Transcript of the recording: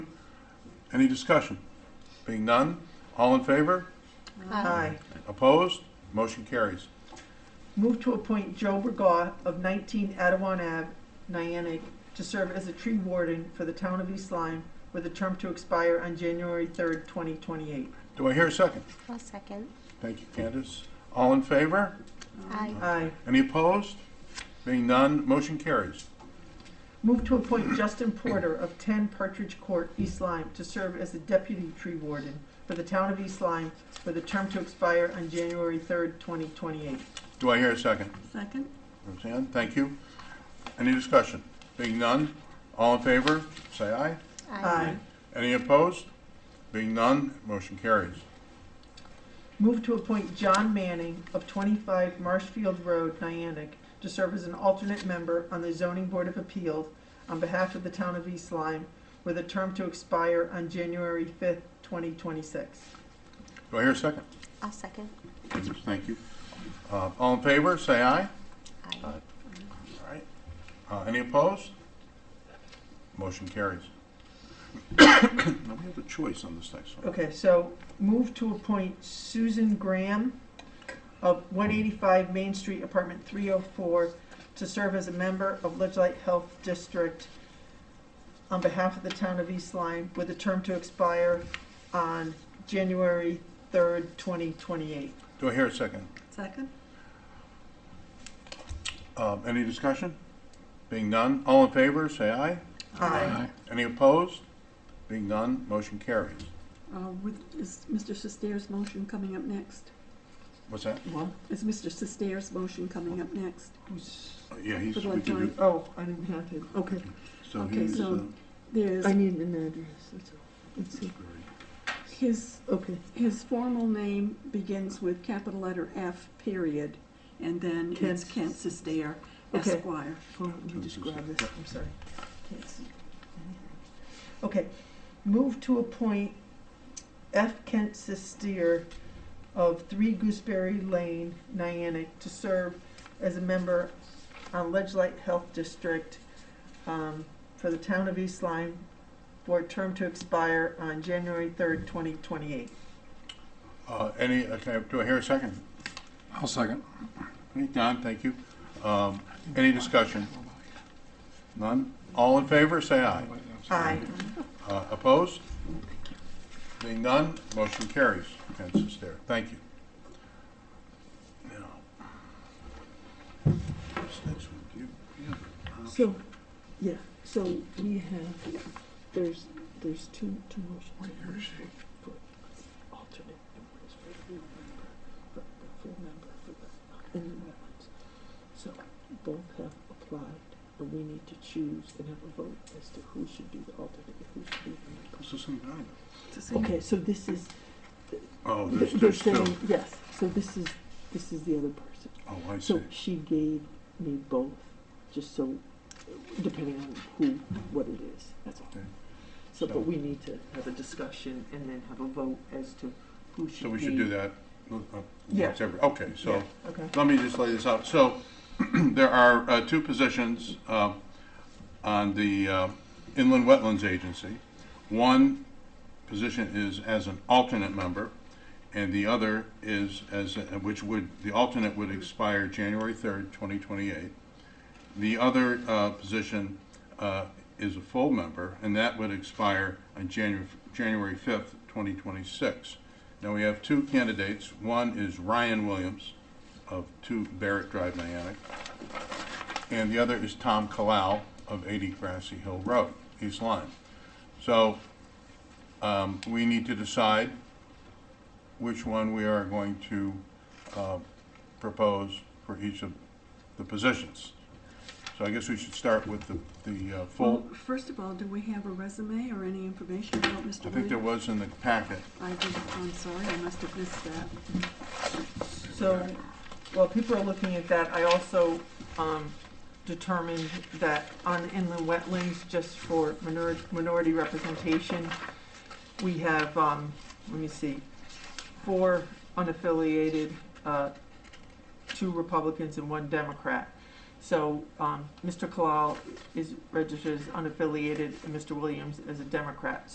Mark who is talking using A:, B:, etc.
A: Any discussion? Being none, all in favor?
B: Aye.
A: Opposed? Motion carries.
B: Move to appoint Joe Bergaw of 19 Adawan Ave, Niantic, to serve as a tree warden for the town of East Lyme with a term to expire on January 3rd, 2028.
A: Do I hear a second?
C: I'll second.
A: Thank you, Candace. All in favor?
C: Aye.
B: Aye.
A: Any opposed? Being none, motion carries.
B: Move to appoint Justin Porter of 10 Partridge Court, East Lyme, to serve as the deputy tree warden for the town of East Lyme with a term to expire on January 3rd, 2028.
A: Do I hear a second?
D: Second?
A: Roseanne, thank you. Any discussion? Being none, all in favor, say aye.
B: Aye.
A: Any opposed? Being none, motion carries.
B: Move to appoint John Manning of 25 Marshfield Road, Niantic, to serve as an alternate member on the Zoning Board of Appeals on behalf of the town of East Lyme, with a term to expire on January 5th, 2026.
A: Do I hear a second?
C: I'll second.
A: Candace, Thank you. Uh, All in favor, say aye.
C: Aye.
A: All right. Uh, Any opposed? Motion carries. Now, we have a choice on this next one.
B: Okay, so move to appoint Susan Graham of 185 Main Street, Apartment 304, to serve as a member of Ledgely Health District on behalf of the town of East Lyme, with a term to expire on January 3rd, 2028.
A: Do I hear a second?
D: Second?
A: Um, Any discussion? Being none, all in favor, say aye.
B: Aye.
A: Any opposed? Being none, motion carries.
D: Uh, With, is Mr. Sestairs' motion coming up next?
A: What's that?
B: Well,
D: Is Mr. Sestairs' motion coming up next?
B: who's,
A: Uh, Yeah, he's,
D: For the
A: we can do,
D: auditorium.
B: oh, I didn't have it.
D: Okay,
A: so
D: Okay,
A: he's,
D: so-
A: uh,
D: there's,
B: I need an address, that's all. Let's see,
D: his,
B: okay.
D: his formal name begins with capital letter F, period, and then it's
B: Kent.
D: Kent Sestair,
B: Okay.
D: Esquire.
B: Hold on, let me just grab this, I'm sorry. Can't see anything. Okay, move to appoint F. Kent Sestier of Three Gooseberry Lane, Niantic, to serve as a member on Ledge Light Health District um, for the town of East Lyme for a term to expire on January third, twenty twenty-eight.
A: uh, any, okay, do I hear a second?
E: I'll second.
A: Okay, Don, thank you. Um, Any discussion? None? All in favor, say aye.
B: Aye.
A: Uh, Opposed? Being none, motion carries. Consensus there. Thank you. Now, this next one, do you- do you have an option?
F: So, yeah, so we have, there's, there's two, two motions. One is for- for alternate and one is for full member, for- for full member for the, in the wetlands. So both have applied, and we need to choose and have a vote as to who should be the alternate and who should be the member.
A: This is some kind of-
D: It's the same.
F: Okay, so this is,
A: Oh, there's,
F: they're
A: there's two.
F: saying, yes, so this is, this is the other person.
A: Oh, I see.
F: So she gave me both, just so, depending on who, what it is, that's all.
A: Okay.
F: So,
A: So-
F: but we need to have a discussion and then have a vote as to who should be.
A: So we should do that. uh,
F: Yeah.
A: uh, Okay, so.
F: Yeah, Okay.
A: Let me just lay this out. So there are uh, two positions uh, on the uh, Inland Wetlands Agency. One position is as an alternate member, and the other is as, a- which would, the alternate would expire January 3rd, 2028. The other uh, position uh, is a full member, and that would expire on January, January 5th, 2026. Now, we have two candidates. One is Ryan Williams of 2 Barrett Drive, Niantic, and the other is Tom Kalau of 80 Grassy Hill Road, East Lyme. So um, we need to decide which one we are going to uh, propose for each of the positions. So I guess we should start with the, the uh,
D: Well,
A: full,
D: first of all, do we have a resume or any information about Mr.
A: I think there was
D: Williams?
A: in the packet.
D: I did, I'm sorry, I must have missed that.
B: So, while people are looking at that, I also um, determined that on inland wetlands, just for minor- minority representation, we have, um, let me see, four unaffiliated, uh, two Republicans and one Democrat. So um, Mr. Kalal is registered as unaffiliated, and Mr. Williams as a Democrat.